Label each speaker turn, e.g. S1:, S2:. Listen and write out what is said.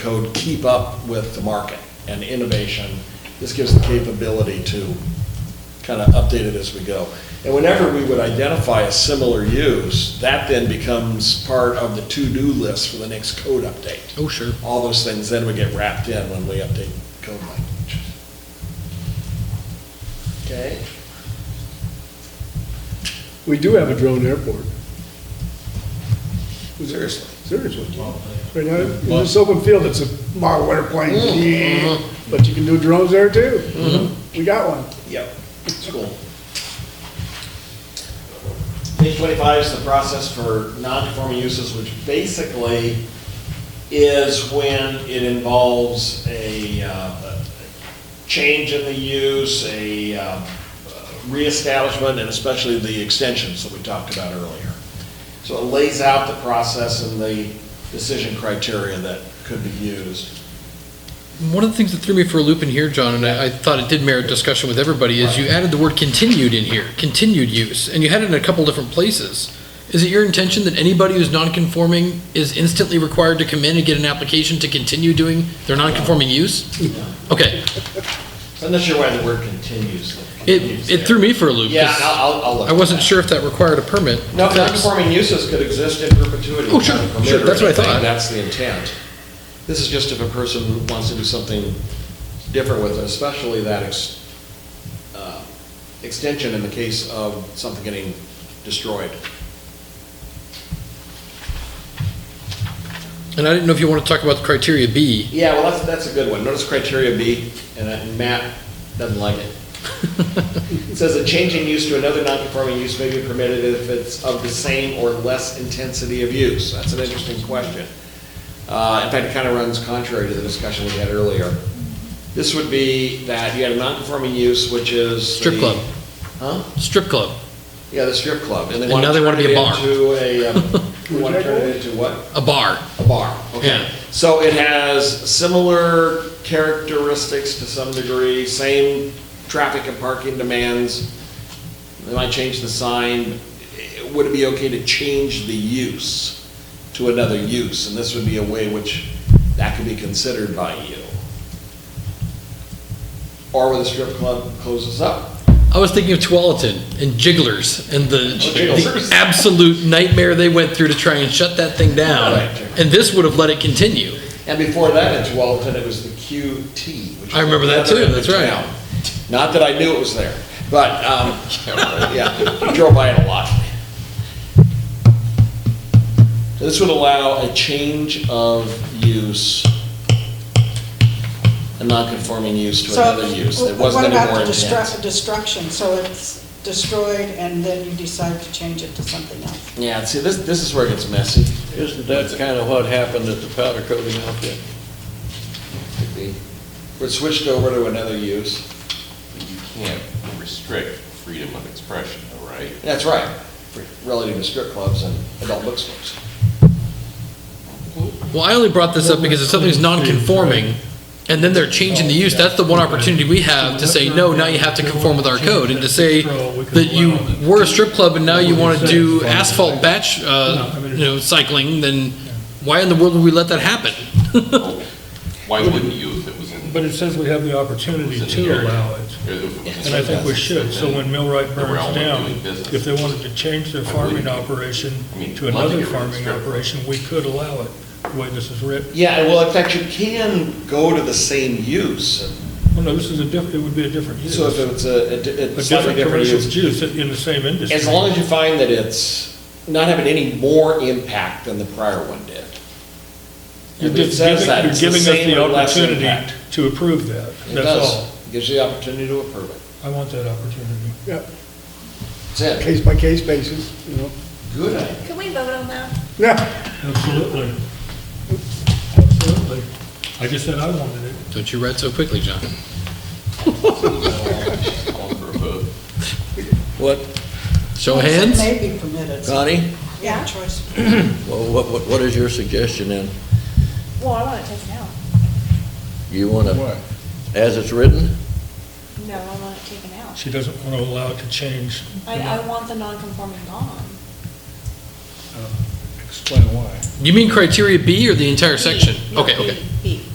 S1: code keep up with the market and innovation. This gives the capability to kind of update it as we go. And whenever we would identify a similar use, that then becomes part of the to-do list for the next code update.
S2: Oh, sure.
S1: All those things then would get wrapped in when we update code language. Okay?
S2: We do have a drone airport,
S1: Seriously.
S2: seriously. Right now, in this open field, it's a model airplane, Yeah. but you can do drones there too. We got one.
S1: Yep, it's cool. Page twenty-five is the process for non-conforming uses, which basically is when it involves a, uh, a change in the use, a um, reestablishment, and especially the extensions that we talked about earlier. So it lays out the process and the decision criteria that could be used.
S3: One of the things that threw me for a loop in here, John, and I, I thought it did merit discussion with everybody, is you added the word continued in here, continued use, and you had it in a couple different places. Is it your intention that anybody who's non-conforming is instantly required to come in and get an application to continue doing their non-conforming use? Okay,
S1: So I'm not sure why the word continues. continues
S3: it, it
S1: there.
S3: threw me for a loop.
S1: Yeah,
S3: 'cause
S1: I'll, I'll- I'll look.
S3: I wasn't sure if that required a permit.
S1: No,
S3: to fix.
S1: non-conforming uses could exist in perpetuity.
S3: Oh, sure,
S1: without a permit
S3: sure,
S1: or
S3: that's what I thought.
S1: anything, That's the intent. This is just if a person wants to do something different with it, especially that ex- uh, extension in the case of something getting destroyed.
S3: And I didn't know if you want to talk about the criteria B.
S1: Yeah, well, that's, that's a good one. Notice criteria B, and uh, Matt doesn't like it. It says a change in use to another non-conforming use may be permitted if it's of the same or less intensity of use. That's an interesting question. Uh, in fact, it kind of runs contrary to the discussion we had earlier. This would be that you had a non-conforming use, which is.
S3: Strip
S1: the-
S3: club.
S1: Huh?
S3: Strip club,
S1: Yeah, the strip club. And
S3: And now they
S1: turn
S3: wanna be a
S1: it
S3: bar.
S1: Into a, um, they want to turn it into what?
S3: a bar.
S1: A bar,
S3: Yeah.
S1: okay. So it has similar characteristics to some degree, same traffic and parking demands. They might change the sign. Would it be okay to change the use to another use? And this would be a way which that could be considered by you. Or where the strip club closes up.
S3: I was thinking of Tualatin and Jigglers and the,
S1: Oh, Jigglers.
S3: the absolute nightmare they went through to try and shut that thing down.
S1: Right.
S3: And this would have let it continue.
S1: And before that, in Tualatin, it was the QT. which
S3: I
S1: is
S3: remember that too,
S1: another
S3: that's right.
S1: town. Not that I knew it was there, but, um, yeah, we drove by it a lot. So This would allow a change of use, a non-conforming use to
S4: So,
S1: another use that
S4: wh-
S1: wasn't any more
S4: What about the
S1: intense.
S4: destru- destruction, so it's destroyed and then you decide to change it to something else?
S1: Yeah, see, this, this is where it gets messy.
S5: Isn't that kind of what happened at the powder coating outfit?
S1: Could be. We're switched over to another use.
S6: You can't restrict freedom of expression, though, right?
S1: That's right, for- relative to strip clubs and adult bookstores.
S3: Well, I only brought this up because if something's non-conforming and then they're changing the use, that's the one opportunity we have to say, no, now you have to conform with our code. And to say that you were a strip club and now you want to do asphalt batch, uh, you know, cycling, then why in the world would we let that happen?
S6: Why wouldn't you if it was in?
S7: But it says we have the opportunity to allow it, and I think we should, so when Millwright burns down, if they wanted to change their farming operation to another farming operation, we could allow it, the way this is written.
S1: Yeah, and well, in fact, you can go to the same use.
S7: Well, no, this is a diff, it would be a different use,
S1: So if
S7: a
S1: it's a, a- a slightly
S7: different
S1: different
S7: commercial
S1: use,
S7: use in the same industry.
S1: as long as you find that it's not having any more impact than the prior one did.
S7: You're
S1: If
S7: gi-
S1: it says that,
S7: giving-
S1: it's the
S7: You're
S1: same
S7: giving
S1: or
S7: us the
S1: less impact.
S7: opportunity to approve that,
S1: It
S7: that's
S1: does.
S7: all.
S1: It Gives you the opportunity to approve it.
S7: I want that opportunity.
S2: Yep,
S1: That's it.
S2: case by case basis, you know.
S1: Good idea.
S8: Can we vote on that?
S2: Yeah,
S7: Absolutely. Absolutely. I just said I wanted it.
S3: Don't you write so quickly, John.
S5: What,
S3: Show of hands.
S4: It may be permitted. so-
S5: Connie?
S4: Yeah, choice.
S5: Well, what, what, what is your suggestion then?
S8: Well, I want it taken out.
S5: You want to, as it's written?
S8: No, I want it taken out.
S7: She doesn't want to allow it to change.
S8: I, I want the non-conforming gone.
S9: uh, explain why.
S3: You mean criteria B or the entire section?
S4: B, no,
S3: Okay, okay.
S4: B, B.